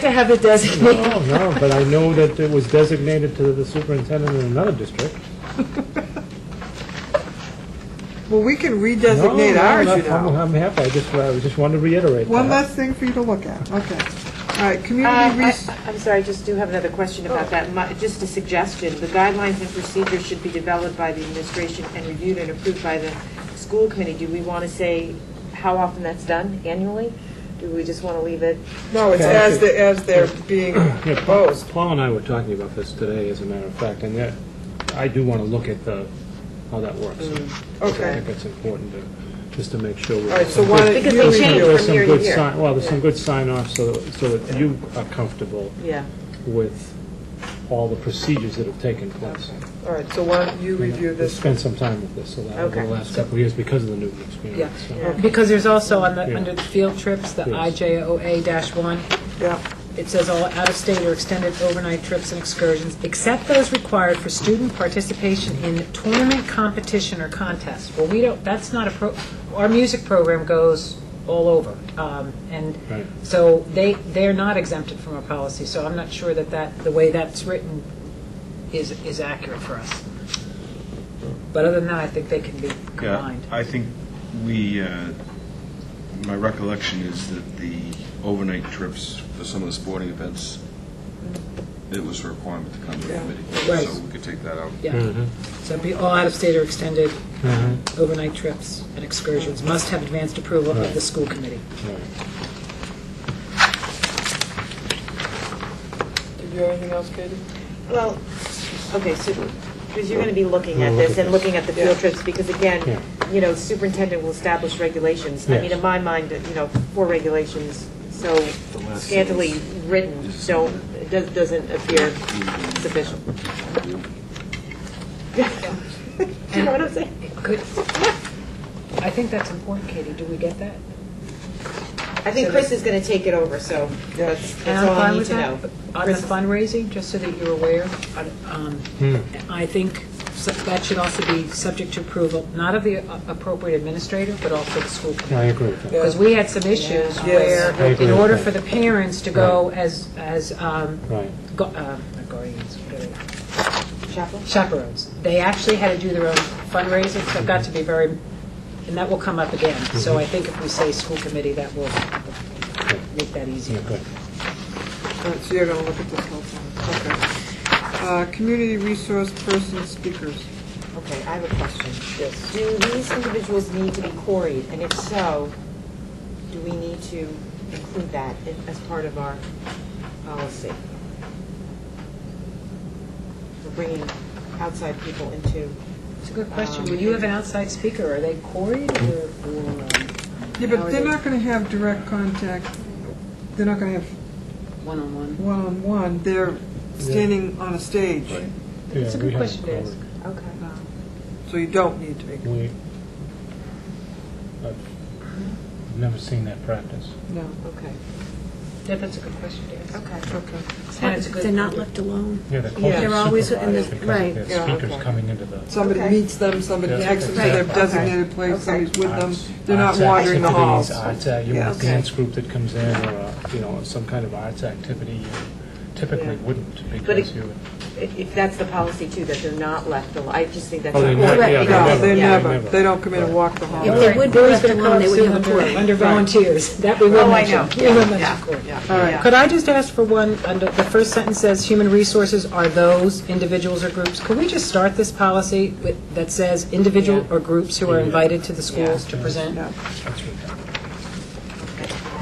to have it designated. No, no, but I know that it was designated to the superintendent in another district. Well, we can No, redesignate no, ours, you I'm- I'm- know. I'm happy, I just, I just wanted to reiterate One that. less thing for you to look at, okay. All right, Uh, community I- res, I'm sorry, I just do have another question about that. My- Just a suggestion, the guidelines and procedures should be developed by the administration and reviewed and approved by the school committee. Do we want to say how often that's done annually? Do we just want to leave it? no, it's as, the- as they're being Yeah, Paul, proposed. Paul and I were talking about this today, as a matter of fact, and that, I do want to look at the, how that works. I Mm, Okay, think it's important to, just to make sure. we're- all right, so why don't Because you they change review There's it? some year to good year. sign, well, there's some good sign-offs so, that- so that you are comfortable Yeah. with all the procedures that have taken place. All right, so why don't you review We this? spent some time with this over Okay. the last couple of years because of the Newton experience. so. Because there's also on the, Yeah. under the field trips, the Yes. IJOA-1, Yeah, it says all out-of-state or extended overnight trips and excursions, except those required for student participation in tournament competition or contest. Well, we don't, that's not a, pro. our music program goes all over. um, And Right. so they, they're not exempted from our policy, so I'm not sure that that, the way that's written is, is accurate for us. But other than that, I think they can be Yeah, combined. I think we, uh, my recollection is that the overnight trips for some of the sporting events, it was a requirement to come to the Yeah. committee. So Right. we could take that out. Yeah. Mm-hmm. So it'd be all out-of-state or extended Uh-huh. overnight trips and excursions must have advanced approval of the school committee. did you have anything else, Katie? Well, okay, so, because you're going to be looking at this and looking at the field trips, because Yeah. again, you know, superintendent will establish regulations. I mean, Yes. in my mind, uh, you know, four regulations, so scantily written, don't, does- doesn't appear sufficient. Do you know what I'm saying? Good. I think that's important, Katie. Do we get that? I think Chris is going to take it over, so that's And that's I'm all I fine need with to know. that. But On the fundraising, just so that you're aware, um, Hmm. I think su- that should also be subject to approval, not of the a- appropriate administrator, but also the school committee. I agree with that. Because we had some issues Yeah. where, Yes. I agree in with order that. for the parents to go as, as um, Right. gu- uh, not guardians, whatever. Chaplain? chaperones. They actually had to do their own fundraising, so it got to be very, and that will come up again. Mm-hmm. So I think if we say school committee, that will make that easier. Okay. All right, so you're gonna look at this whole thing, okay. Uh, community resource person speakers. Okay, I have a question. Yes. Do these individuals need to be quarried, and if so, do we need to include that in- as part of our policy? For bringing outside people into, um, It's a good question. Will you have an outside speaker? Are they quarried or? or, um, Yeah, how but are they're they not gonna have direct contact, they're not gonna have One-on-one. one-on-one, they're standing on a stage, Right. It's a Yeah, good we have question to covered. ask. okay. so you don't need to be, We, I've never seen that practice. no, Okay, Yeah, that's a good question to ask. okay. okay. And it's a good- They're not left alone. Yeah, they're Yeah. They're called always in the- supervised because right. of Yeah, their speakers okay. coming into the. Somebody Okay. meets them, somebody Yeah. takes them to their Right. designated place, Okay. somebody's with them, arts- they're not arts wandering the activities, halls. arts, uh, you Yeah. want a dance group that comes in or, a, you know, some kind of arts activity you typically Yeah. wouldn't it- because you. If, if that's the policy too, that they're not left alone, I just think that's. Oh, they're not- important. yeah, No, they're they Yeah. never, they don't come in and walk the hall. If they would be left They're alone, they would have a under- court. Under volunteers. That we will Oh, I mention. know. We will Yeah, mention court. yeah, All right. yeah. Could I just ask for one, under, the first sentence says, "Human resources are those individuals or groups." Could we just start this policy with, that says individual or groups who are invited to the schools to present? Yeah. That's right.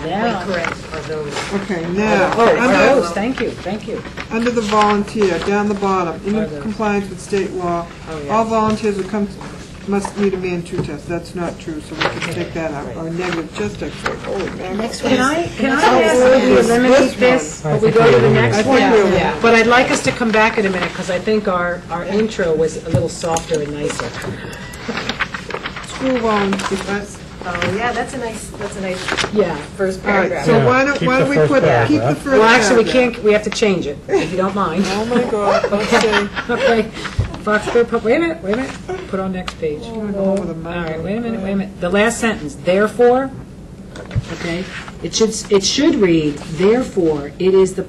Yeah. Correct, are those, Okay, now, Oh, are those, under, thank you, thank you. under the volunteer, down the bottom, Are in those. compliance with state law, Oh, yeah. all volunteers who come, must meet a man-two test, that's not true, so we can take that out, or negative, just a, holy mackerel. Next one. I, can I Oh, ask, we this- this eliminate one. this, I or we think go we to the eliminate next it. one? I think we- Yeah. But I'd like us to come back in a minute, because I think our, our intro was a little softer and nicer. School volunteers, oh, yeah, that's a nice, that's a nice Yeah. first all right, paragraph. so Yeah, why don't, keep why the don't we first put, keep the paragraph. first paragraph. Well, actually, we can't, we have to change it, if you don't mind. Oh, my God, let's see. Okay, Foxborough, Pub- wait a minute, wait a minute, put on next page. gonna go over the All right, wait a minute, wait a minute. The last sentence, therefore, okay? It should, it should read, therefore, it is the